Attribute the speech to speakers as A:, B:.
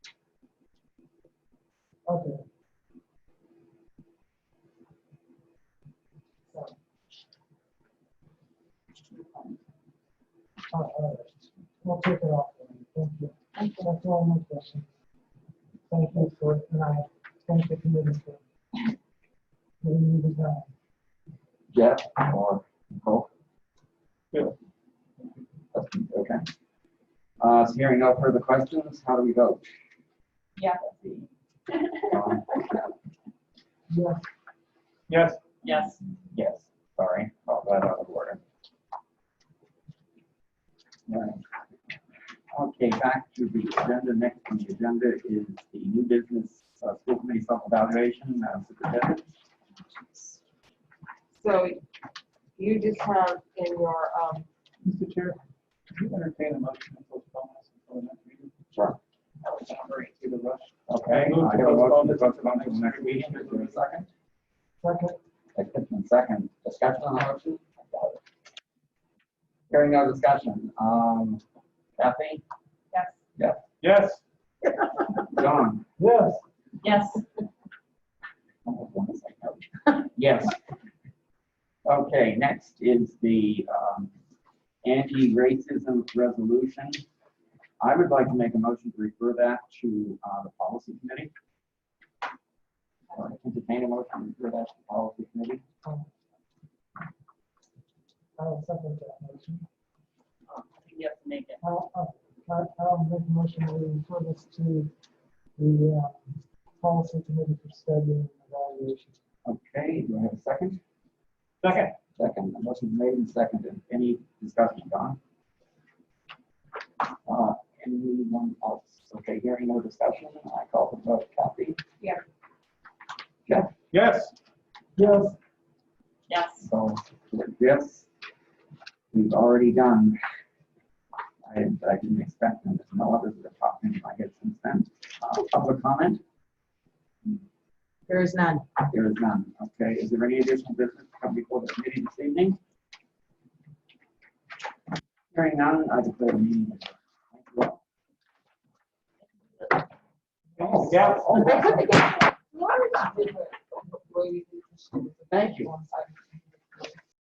A: I'll take it off. Thank you. That's all my questions. Thank you for tonight. Thank the committee for. giving me the time.
B: Jeff or Nicole?
C: Yeah.
B: Okay. Uh, so hearing no further questions, how do we vote?
D: Yeah.
B: Um,
A: Yes,
C: Yes,
D: Yes.
B: Yes, sorry, all that out of order. Right. Okay, back to the agenda. Next on the agenda is the new business, uh, school committee self-evaluation, uh, superintendent.
D: So you just have in your, um,
C: Mr. Chair, can you entertain a motion to postpone this until the next meeting?
B: Sure.
C: I was wondering if you would rush.
B: Okay, I have a motion to postpone until the next meeting. Is there a second?
A: second,
B: Extension second, discussion on the motion? Hearing no discussion, um, Kathy,
D: yes.
C: Yes,
B: John?
A: yes,
D: Yes.
B: I almost wanna say no. Yes. Okay, next is the, um, anti-racism resolution. I would like to make a motion to refer that to, uh, the policy committee. Or Entertain a motion to refer that to the policy committee.
A: um, I'll second that motion.
D: You have to make it.
A: I'll, I'll- I'll make a motion to refer this to the uh, policy committee for studying and evaluation.
B: Okay, do I have a second?
C: second.
B: Second, a motion made and seconded. Any discussion, Don? Uh, Anyone else? Okay, hearing no discussion, I call for the vote. Kathy?
D: Yeah.
B: Jeff?
C: Yes,
A: Yes,
D: Yes.
B: So, yes, we've already done. I, I didn't expect them, there's no others that have popped in my head since then. Uh, Public comment?
E: There is none.
B: There is none. Okay, is there any additional business to come before the committee this evening? Hearing none, I declare the meeting. adjourned. Thank you all.
C: Oh, yeah.
B: Oh,
D: Thank you.